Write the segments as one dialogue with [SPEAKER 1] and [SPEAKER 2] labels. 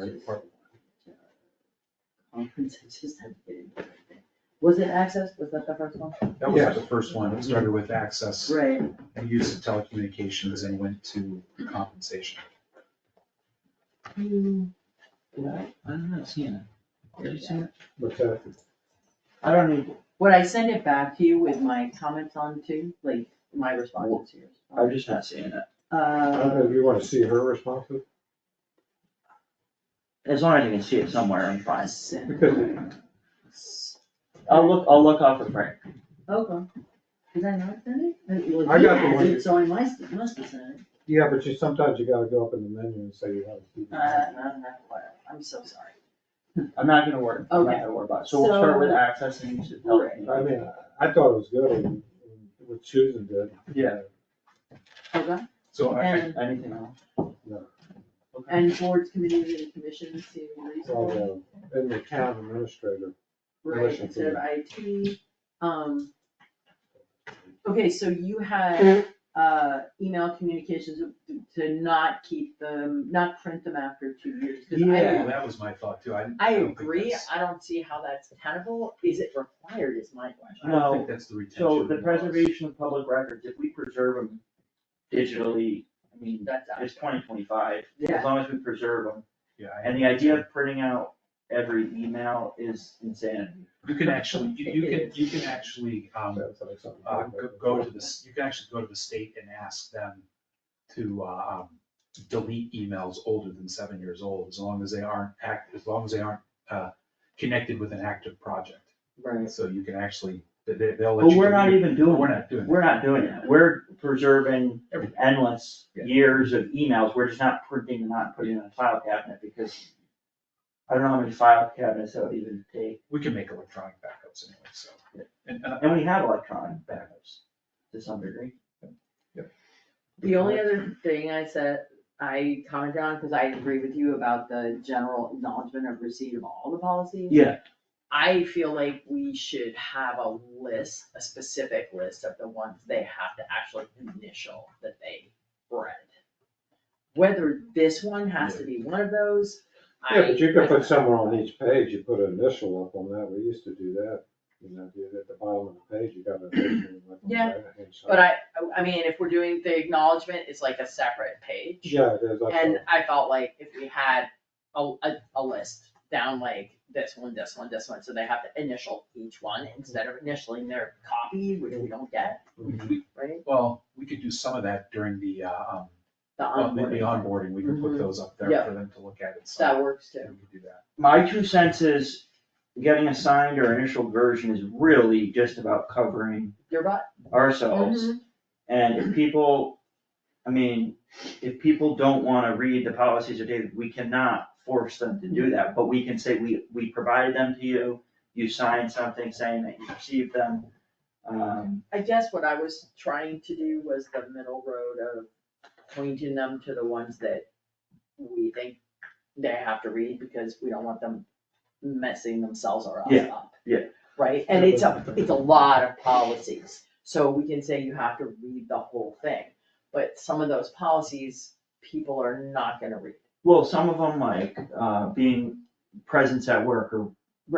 [SPEAKER 1] right?
[SPEAKER 2] Conference, I just had to get into it. Was it Access? Was that the first one?
[SPEAKER 3] That was the first one, it started with access
[SPEAKER 2] Right.
[SPEAKER 3] and use of telecommunications and went to compensation.
[SPEAKER 1] I'm not seeing it. Did you see it?
[SPEAKER 4] What's that?
[SPEAKER 2] I don't need, would I send it back to you with my comments on too, like my responses to yours?
[SPEAKER 1] I'm just not seeing it.
[SPEAKER 4] I don't know,
[SPEAKER 2] Uh,
[SPEAKER 4] do you wanna see her responses?
[SPEAKER 1] As long as I can see it somewhere, I'm fine.
[SPEAKER 2] send.
[SPEAKER 4] Because
[SPEAKER 1] I'll look, I'll look off of Frank.
[SPEAKER 2] Okay. Did I not send it? It was
[SPEAKER 4] I
[SPEAKER 2] you
[SPEAKER 4] got the
[SPEAKER 2] had
[SPEAKER 4] one
[SPEAKER 2] it,
[SPEAKER 4] you-
[SPEAKER 2] So I must, must have sent it.
[SPEAKER 4] Yeah, but you, sometimes you gotta go up in the menu and say you haven't seen
[SPEAKER 2] Uh,
[SPEAKER 4] it.
[SPEAKER 2] no, no, whatever. I'm so sorry.
[SPEAKER 1] I'm not gonna worry, I'm not
[SPEAKER 2] Okay.
[SPEAKER 1] gonna worry about it. So we'll start with access and use of
[SPEAKER 4] I
[SPEAKER 1] telecommunications.
[SPEAKER 4] mean, I thought it was good, and- and what Susan did.
[SPEAKER 1] Yeah.
[SPEAKER 2] Okay,
[SPEAKER 3] So I, I-
[SPEAKER 2] and,
[SPEAKER 1] Anything else?
[SPEAKER 4] No.
[SPEAKER 1] Okay.
[SPEAKER 2] and boards, committees, and commissions to resolve.
[SPEAKER 4] Well, uh, And the town administrator,
[SPEAKER 2] Right,
[SPEAKER 4] Relation
[SPEAKER 2] instead of
[SPEAKER 4] to
[SPEAKER 2] IT, um. Okay, so you had, uh, email communications to not keep them, not print them after two years, 'cause
[SPEAKER 3] yeah,
[SPEAKER 2] I.
[SPEAKER 3] that was my thought too, I.
[SPEAKER 2] I
[SPEAKER 3] don't think
[SPEAKER 2] agree,
[SPEAKER 3] that's-
[SPEAKER 2] I don't see how that's tenable, is it required is my
[SPEAKER 3] I
[SPEAKER 2] question.
[SPEAKER 3] don't
[SPEAKER 1] No,
[SPEAKER 3] think that's the retention.
[SPEAKER 1] So the
[SPEAKER 3] laws.
[SPEAKER 1] preservation of public records, if we preserve them digitally, I mean,
[SPEAKER 2] That's, out.
[SPEAKER 1] it's twenty twenty-five, as
[SPEAKER 2] Yeah.
[SPEAKER 1] long as we preserve them.
[SPEAKER 3] Yeah. I-
[SPEAKER 1] And the idea of printing out every email is insanity.
[SPEAKER 3] You can actually, you you can,
[SPEAKER 2] It is.
[SPEAKER 3] you can actually, um,
[SPEAKER 4] sounds like something.
[SPEAKER 3] uh, go- go to this, you can actually go to the state and ask them to, uh, um, delete emails older than seven years old, as long as they aren't act, as long as they aren't, uh, connected with an active project.
[SPEAKER 1] Right.
[SPEAKER 3] So you can actually, they- they, they'll let
[SPEAKER 1] But
[SPEAKER 3] you.
[SPEAKER 1] we're not
[SPEAKER 3] delete-
[SPEAKER 1] even doing,
[SPEAKER 3] We're not doing that.
[SPEAKER 1] we're not doing that, we're preserving
[SPEAKER 3] Everything.
[SPEAKER 1] endless
[SPEAKER 3] Yeah.
[SPEAKER 1] years of emails, we're just not printing, and not putting in a file cabinet, because I don't know how many file cabinets that would even take,
[SPEAKER 3] We can make electronic backups anyway, so. And, uh,
[SPEAKER 1] and we have electronic backups to some degree.
[SPEAKER 2] The only other thing I said, I commented on, cause I agree with you about the general acknowledgement of receipt of all the policies.
[SPEAKER 1] Yeah,
[SPEAKER 2] I feel like we should have a list, a specific list of the ones they have to actually initial that they read. Whether this one has to be one of those, I.
[SPEAKER 4] Yeah, but you could put somewhere on each page, you put an initial up on that, we used to do that, you know, do it at the bottom of the page, you got an initial. like, on the
[SPEAKER 2] Yeah,
[SPEAKER 4] right-hand side.
[SPEAKER 2] But I, I mean, if we're doing the acknowledgement, it's like a separate page.
[SPEAKER 4] Yeah, it is, I
[SPEAKER 2] And
[SPEAKER 4] thought,
[SPEAKER 2] I felt like if we had a, a, a list down like this one, this one, this one, so they have to initial each one instead of initialing their copy, which we don't get,
[SPEAKER 3] we-
[SPEAKER 2] right?
[SPEAKER 3] well, we could do some of that during the, uh, um,
[SPEAKER 2] The
[SPEAKER 3] well, the the
[SPEAKER 2] onboarding,
[SPEAKER 3] onboarding, we could put
[SPEAKER 2] Mhm.
[SPEAKER 3] those up there
[SPEAKER 2] Yeah.
[SPEAKER 3] for them to look at and stuff.
[SPEAKER 2] that works too.
[SPEAKER 3] We could do that.
[SPEAKER 1] my two cents is, getting a signed or initial version is really just about covering
[SPEAKER 2] Your butt. Mm-hmm.
[SPEAKER 1] ourselves. And if people, I mean, if people don't wanna read the policies or data, we cannot force them to do that, but we can say, we, we provided them to you, you signed something saying that you received them. Um,
[SPEAKER 2] I guess what I was trying to do was the middle road of pointing them to the ones that we think they have to read because we don't want them messing themselves or us
[SPEAKER 1] Yeah,
[SPEAKER 2] up.
[SPEAKER 1] yeah.
[SPEAKER 2] Right, and it's a, it's a lot of policies, so we can say you have to read the whole thing, but some of those policies, people are not gonna read.
[SPEAKER 1] well, some of them like, uh, being presence at work or,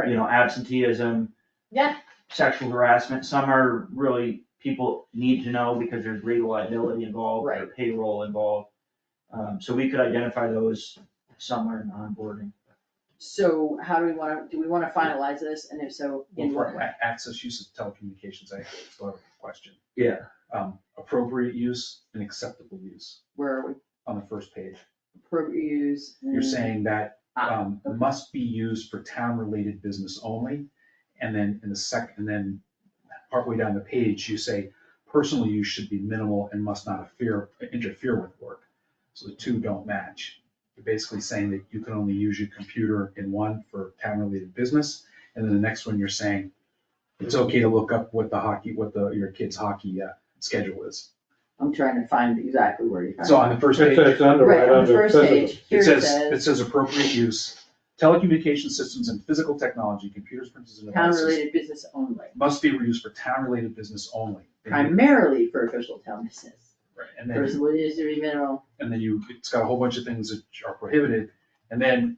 [SPEAKER 1] you know, absenteeism,
[SPEAKER 2] Yeah,
[SPEAKER 1] sexual harassment, some are really, people need to know because there's legal liability involved, or
[SPEAKER 2] Right.
[SPEAKER 1] payroll involved. Um, so we could identify those somewhere in onboarding.
[SPEAKER 2] so how do we wanna, do we wanna finalize this, and if so,
[SPEAKER 3] Well,
[SPEAKER 2] in what
[SPEAKER 3] for
[SPEAKER 2] way?
[SPEAKER 3] a- access use of telecommunications, I still have a question.
[SPEAKER 1] Yeah.
[SPEAKER 3] Um, appropriate use and acceptable use
[SPEAKER 2] Where are we,
[SPEAKER 3] on the first page.
[SPEAKER 2] pro- use?
[SPEAKER 3] You're saying that,
[SPEAKER 2] Ah,
[SPEAKER 3] um, must be used for town-related business only. And then in the sec, and then partway down the page, you say, personal use should be minimal and must not interfere, interfere with work. So the two don't match. You're basically saying that you can only use your computer in one for town-related business. And then the next one, you're saying, it's okay to look up what the hockey, what the, your kid's hockey, uh, schedule is.
[SPEAKER 2] I'm trying to find exactly where you found
[SPEAKER 3] So on the first page.
[SPEAKER 4] it's, it's under,
[SPEAKER 2] Right,
[SPEAKER 4] right
[SPEAKER 2] on the
[SPEAKER 4] under
[SPEAKER 2] first
[SPEAKER 4] physical.
[SPEAKER 2] page, here
[SPEAKER 3] It
[SPEAKER 2] it
[SPEAKER 3] says, it
[SPEAKER 2] says,
[SPEAKER 3] says appropriate use, telecommunication systems and physical technology, computers, printers and devices
[SPEAKER 2] town-related business only,
[SPEAKER 3] must be reused for town-related business only. And you-
[SPEAKER 2] primarily for official town business.
[SPEAKER 3] right, And then,
[SPEAKER 2] Personal use or mineral
[SPEAKER 3] and then you, it's got a whole bunch of things that are prohibited. And then